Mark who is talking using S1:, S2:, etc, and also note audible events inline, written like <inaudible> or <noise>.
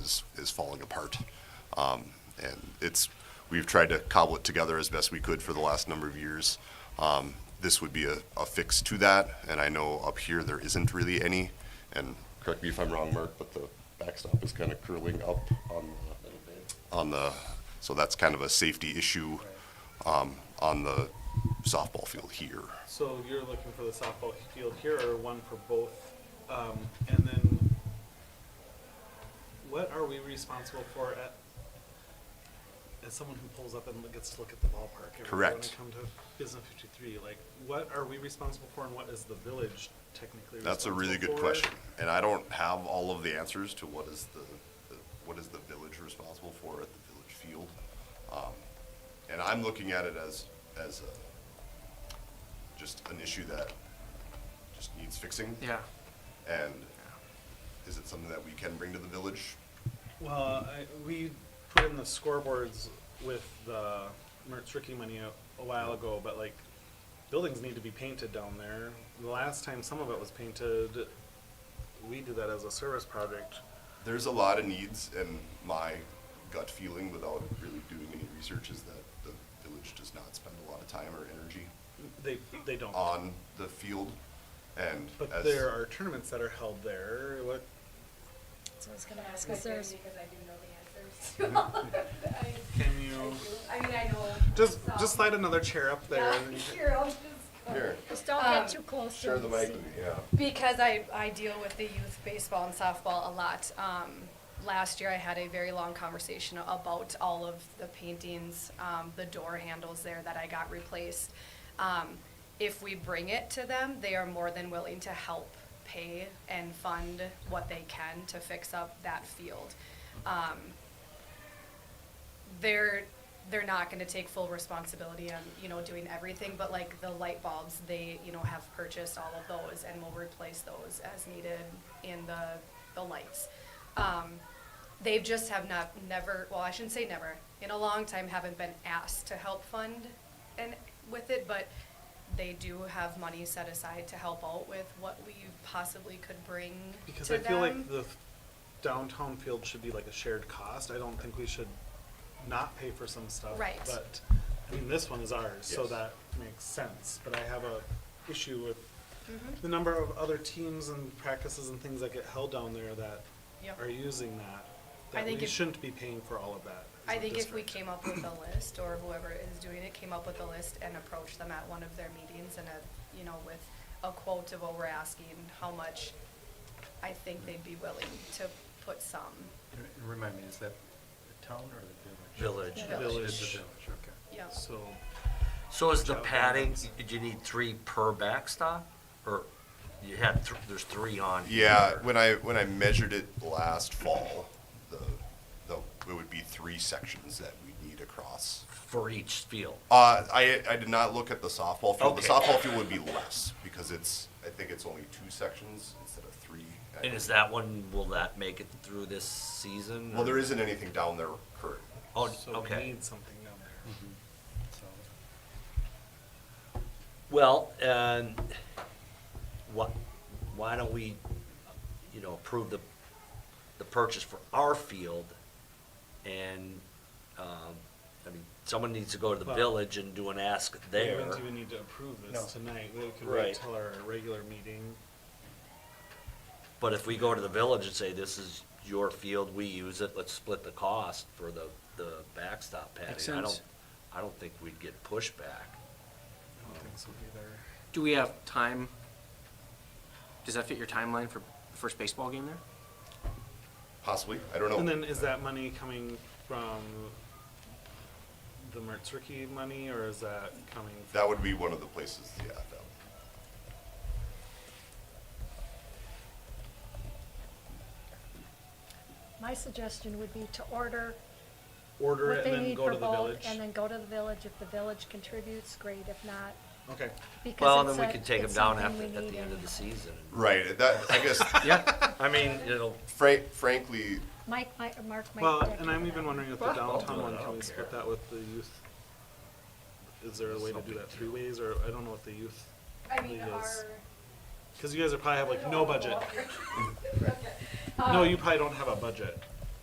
S1: is, is falling apart. Um, and it's, we've tried to cobble it together as best we could for the last number of years. Um, this would be a, a fix to that, and I know up here there isn't really any. And correct me if I'm wrong, Mark, but the backstop is kind of curling up on the, on the, so that's kind of a safety issue, um, on the softball field here.
S2: So you're looking for the softball field here or one for both? Um, and then what are we responsible for at, as someone who pulls up and gets to look at the ballpark? every day When
S1: Correct.
S2: I come to Business 53, like what are we responsible for and what is the village technically responsible for?
S1: That's a really good question, and I don't have all of the answers to what is the, the- what is the village responsible for at the village field. Um, And I'm looking at it as, as a, just an issue that just needs fixing.
S2: Yeah.
S1: And is it something that we can bring to the village?
S2: Well, I, we put in the scoreboards with the Mertz Ricky money a, a while ago, but like buildings need to be painted down there. The last time some of it was painted, we did that as a service project.
S1: There's a lot of needs, and my gut feeling without really doing any research is that the village does not spend a lot of time or energy
S2: They they don't.
S1: on the field, and
S2: but
S1: as.
S2: there are tournaments that are held there. What
S3: So I was gonna
S4: Ask
S3: ask,
S4: my
S3: is there,
S4: theory because I do know the answers <laughs> to all of that. I-
S2: can
S4: I
S2: you
S4: do. I mean, I know.
S2: just
S4: some.
S2: just slide another chair up there?
S4: Yeah, <laughs>
S2: and you can-
S4: sure, I'll just. go.
S1: Here,
S3: just don't get
S4: Um,
S3: too close to
S1: share the mic
S3: seat.
S1: with me, yeah.
S3: Because I, I deal with the youth baseball and softball a lot. Um, last year I had a very long conversation about all of the paintings, um, the door handles there that I got replaced. Um, if we bring it to them, they are more than willing to help pay and fund what they can to fix up that field. Um, they're they're not going to take full responsibility on you know doing everything but like the light bulbs they you know have purchased all of those and will replace those as needed in the the lights um, they just have not never well i shouldn't say never in a long time haven't been asked to help fund and with it but they do have money set aside to help out with what we possibly could bring
S2: Because
S3: to
S2: I feel
S3: them.
S2: like the downtown field should be like a shared cost. I don't think we should not pay for some stuff.
S3: Right.
S2: But, I mean, this one is ours, so
S1: Yes.
S2: that makes sense. But I have a issue with
S3: Mhm.
S2: the number of other teams and practices and things that get held down there that
S3: Yep.
S2: are using that.
S3: I
S2: That
S3: think
S2: we
S3: if-
S2: shouldn't be paying for all of that. as
S3: I
S2: a
S3: think if we
S2: district.
S3: came up with a list, or whoever is doing it came up with a list and approached them at one of their meetings and a, you know, with a quote of what we're asking, how much, I think they'd be willing to put some.
S5: And- and Remind me, is that the town or the village?
S3: Village.
S2: Village.
S5: It's the village, okay.
S3: Yeah.
S2: So,
S6: So is the padding, do you need three per backstop? Or you had, th- there's three on?
S1: Yeah,
S6: here.
S1: when I, when I measured it last fall, the, the, it would be three sections that we need across.
S6: For each field?
S1: Uh, I, I did not look at the softball field. The
S6: Okay.
S1: softball field would be less because it's, I think it's only two sections instead of three.
S6: And is that one, will that make it through this season?
S1: Well, there
S6: or-
S1: isn't anything down there currently.
S6: Oh,
S2: so we
S6: okay.
S2: need something down there.
S5: So-
S6: Well, and what, why don't we, you know, approve the, the purchase for our field? And, um, I mean, someone needs to go to the
S2: Well-
S6: village and do an ask there.
S2: We don't even need to approve
S5: No.
S2: this tonight. We could
S6: Right.
S2: wait till our regular meeting.
S6: But if we go to the village and say, this is your field, we use it, let's split the cost for the, the backstop
S7: Makes
S6: padding, I don't,
S7: sense.
S6: I don't think we'd get pushback.
S2: I don't think so either.
S7: Do we have time? Does that fit your timeline for the first baseball game there?
S1: Possibly, I don't know.
S2: And then is that money coming from the Mertz Ricky money or is that coming?
S1: That would be one of the places, yeah, that,
S8: My suggestion would be to order
S2: Order
S8: what
S2: it and
S8: they
S2: then
S8: need
S2: go
S8: for
S2: to the
S8: both,
S2: village?
S8: and then go to the village. If the village contributes, great, if not,
S2: Okay,
S8: because
S6: Well,
S8: it's
S6: then we
S8: a-
S6: could take them
S8: it's
S6: down
S8: something
S6: after,
S8: we
S6: at
S8: need
S6: the end of
S8: anyhow.
S6: the season.
S1: right, that, I guess, <laughs>
S6: Yeah, I mean, it'll,
S1: frank, frankly,
S8: Mike, might Mark might.
S2: well,
S8: object
S2: and
S8: to
S2: I'm
S8: that.
S2: even wondering if the
S6: Well, I'll
S2: downtown
S6: do it,
S2: one,
S6: I
S2: can we
S6: don't
S2: split
S6: care.
S2: that with the youth? Is there a way to do that three ways or I don't know what the youth,
S4: I mean,
S2: Yes.
S4: our.
S2: cause you guys are probably have like no budget.
S4: Okay.
S2: No,
S4: Um,
S8: Uh,
S2: you probably don't have a budget.